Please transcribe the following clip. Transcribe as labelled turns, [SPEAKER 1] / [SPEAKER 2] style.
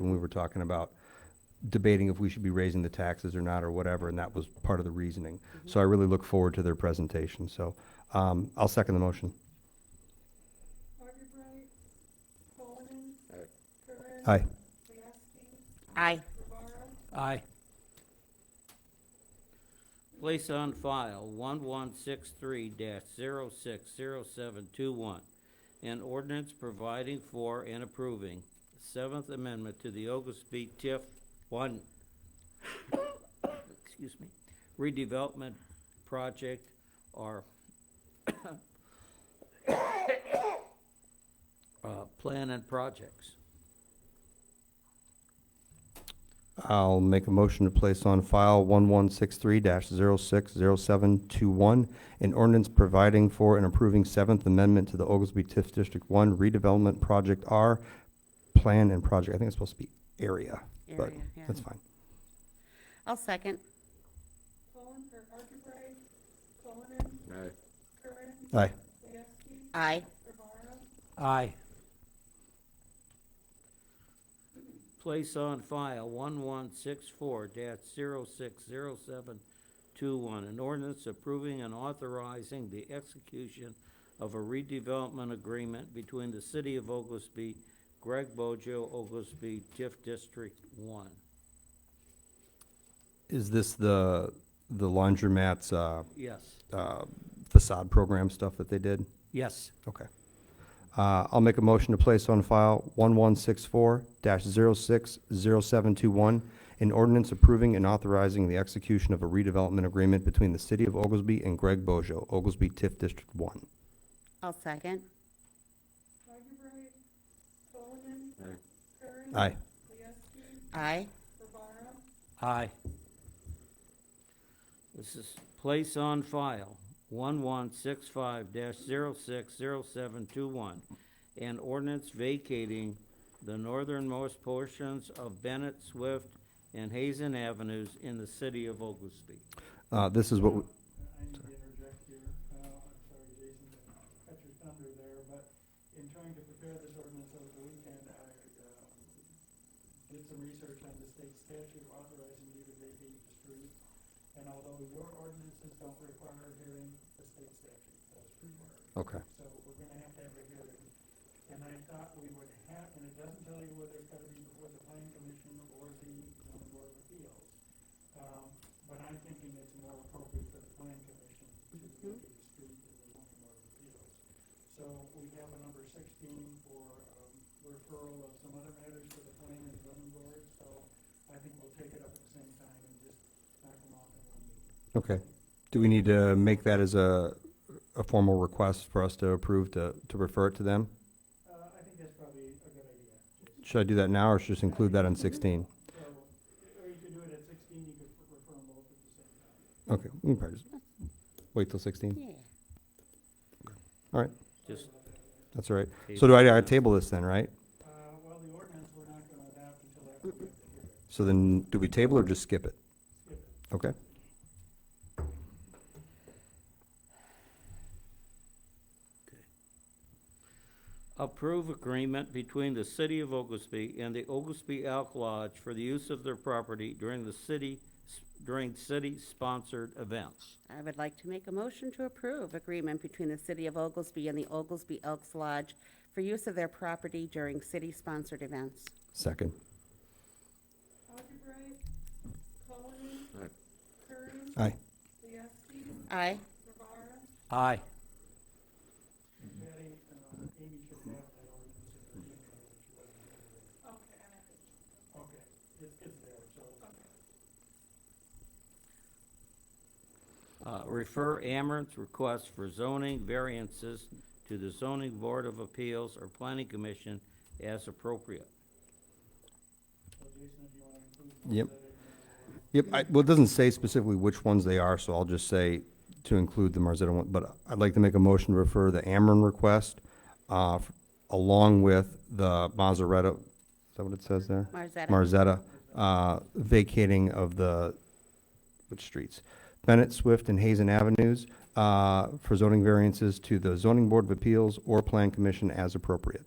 [SPEAKER 1] were talking about debating if we should be raising the taxes or not or whatever, and that was part of the reasoning.
[SPEAKER 2] Mm-hmm.
[SPEAKER 1] So I really look forward to their presentation, so, um, I'll second the motion.
[SPEAKER 3] Archerbright, Coleman.
[SPEAKER 4] Aye.
[SPEAKER 3] Curran.
[SPEAKER 1] Aye.
[SPEAKER 3] Wieroski,
[SPEAKER 2] Aye.
[SPEAKER 3] Rivera,
[SPEAKER 5] Aye.
[SPEAKER 4] Place on file one one six three 60721 An ordinance providing for and approving Seventh Amendment to the Oglesby TIF one, excuse me, redevelopment project or uh, plan and projects.
[SPEAKER 1] I'll make a motion to place on file one-one-six-three 60721 an ordinance providing for and approving Seventh Amendment to the Oglesby Tiff District One redevelopment project R, plan and project, I think it's supposed to be area, but
[SPEAKER 2] Area, yeah.
[SPEAKER 1] that's fine.
[SPEAKER 2] I'll second.
[SPEAKER 3] Coleman, or Archerbright, Coleman,
[SPEAKER 4] Aye.
[SPEAKER 3] Curran,
[SPEAKER 1] Aye.
[SPEAKER 3] Wieroski,
[SPEAKER 2] Aye.
[SPEAKER 3] Rivera,
[SPEAKER 5] Aye.
[SPEAKER 4] place on file one one six four 60721 an ordinance approving and authorizing the execution of a redevelopment agreement between the city of Oglesby, Greg Bojo, Oglesby, TIF District One.
[SPEAKER 1] Is this the, the laundromat's, uh,
[SPEAKER 4] Yes,
[SPEAKER 1] uh, facade program stuff that they did?
[SPEAKER 5] Yes.
[SPEAKER 1] Okay. Uh, I'll make a motion to place on file 1164-060721, an ordinance approving and authorizing the execution of a redevelopment agreement between the City of Oglesby and Greg Bojo, Oglesby TIF District 1.
[SPEAKER 2] I'll second.
[SPEAKER 3] Archerbright, Coleman. Curran.
[SPEAKER 4] Aye.
[SPEAKER 1] Aye.
[SPEAKER 3] Wieroski,
[SPEAKER 2] Aye.
[SPEAKER 3] Rivera,
[SPEAKER 5] Aye.
[SPEAKER 4] this is place on file one one six five 60721 an ordinance vacating the northernmost portions of Bennett, Swift, and Hazen Avenues in the city of Oglesby.
[SPEAKER 1] Uh, This is what, we-
[SPEAKER 6] I need to interject here, uh, I'm sorry, Jason, to cut your thunder there, but in trying to prepare this ordinance over the weekend, I, uh, did some research on the state statute authorizing you to vacate the street, and although your ordinances don't require a hearing, the state statute does require. it.
[SPEAKER 1] okay.
[SPEAKER 6] So we're gonna have to have a hearing, and I thought we would have, and it doesn't tell you whether it's gotta be before the planning commission or the zoning board of appeals. Um, but I'm thinking it's more appropriate for the planning commission to look at the street than the zoning board of appeals. So we have a number sixteen for, um, referral of some other matters to the planning and zoning board, so I think we'll take it up at the same time and just knock them off in one meeting.
[SPEAKER 1] Okay. Do we need to make that as a, a formal request for us to approve to, to refer it to them?
[SPEAKER 6] Uh, I think that's probably a good idea, Jason.
[SPEAKER 1] Should I do that now or should I just include that on 16?
[SPEAKER 6] So, or you could do it at sixteen, you could refer them both at the same time.
[SPEAKER 1] Okay, we can probably just wait till 16.
[SPEAKER 2] Yeah.
[SPEAKER 4] Just
[SPEAKER 1] That's all right. So do I, I table this then, right?
[SPEAKER 6] Uh, well, the ordinance we're not gonna adopt until after we have the hearing.
[SPEAKER 1] So then, do we table or just skip it?
[SPEAKER 6] Skip it.
[SPEAKER 1] Okay.
[SPEAKER 4] Approve agreement between the city of Oglesby and the Oglesby Elk Lodge for the use of their property during the city, during city-sponsored events.
[SPEAKER 2] I would like to make a motion to approve agreement between the City of Oglesby and the Oglesby Elks Lodge for use of their property during city-sponsored events.
[SPEAKER 1] Second.
[SPEAKER 3] Archerbright, Coleman.
[SPEAKER 4] Aye.
[SPEAKER 3] Curran.
[SPEAKER 1] Aye.
[SPEAKER 3] Wieroski,
[SPEAKER 2] Aye.
[SPEAKER 3] Rivera,
[SPEAKER 5] Aye.
[SPEAKER 6] Patty, uh, Amy should have that ordinance in her email that she wasn't able to.
[SPEAKER 3] okay, I'm at it.
[SPEAKER 6] Okay, it's, it's there, so.
[SPEAKER 4] Uh, refer Amerant's request for zoning variances to the zoning board of appeals or planning commission as appropriate.
[SPEAKER 6] So Jason, if you wanna include.
[SPEAKER 1] Yep.
[SPEAKER 6] that in there, or-
[SPEAKER 1] Yep, I, well, it doesn't say specifically which ones they are, so I'll just say to include the Marzetta one, but I'd like to make a motion to refer the Ameren request, uh, f- along with the Mazzaretta, is that what it says there?
[SPEAKER 2] Marzetta.
[SPEAKER 1] Marzetta, uh, vacating of the, which streets? Bennett, Swift, and Hazen Avenues, uh, for zoning variances to the zoning board of appeals or plan commission as appropriate.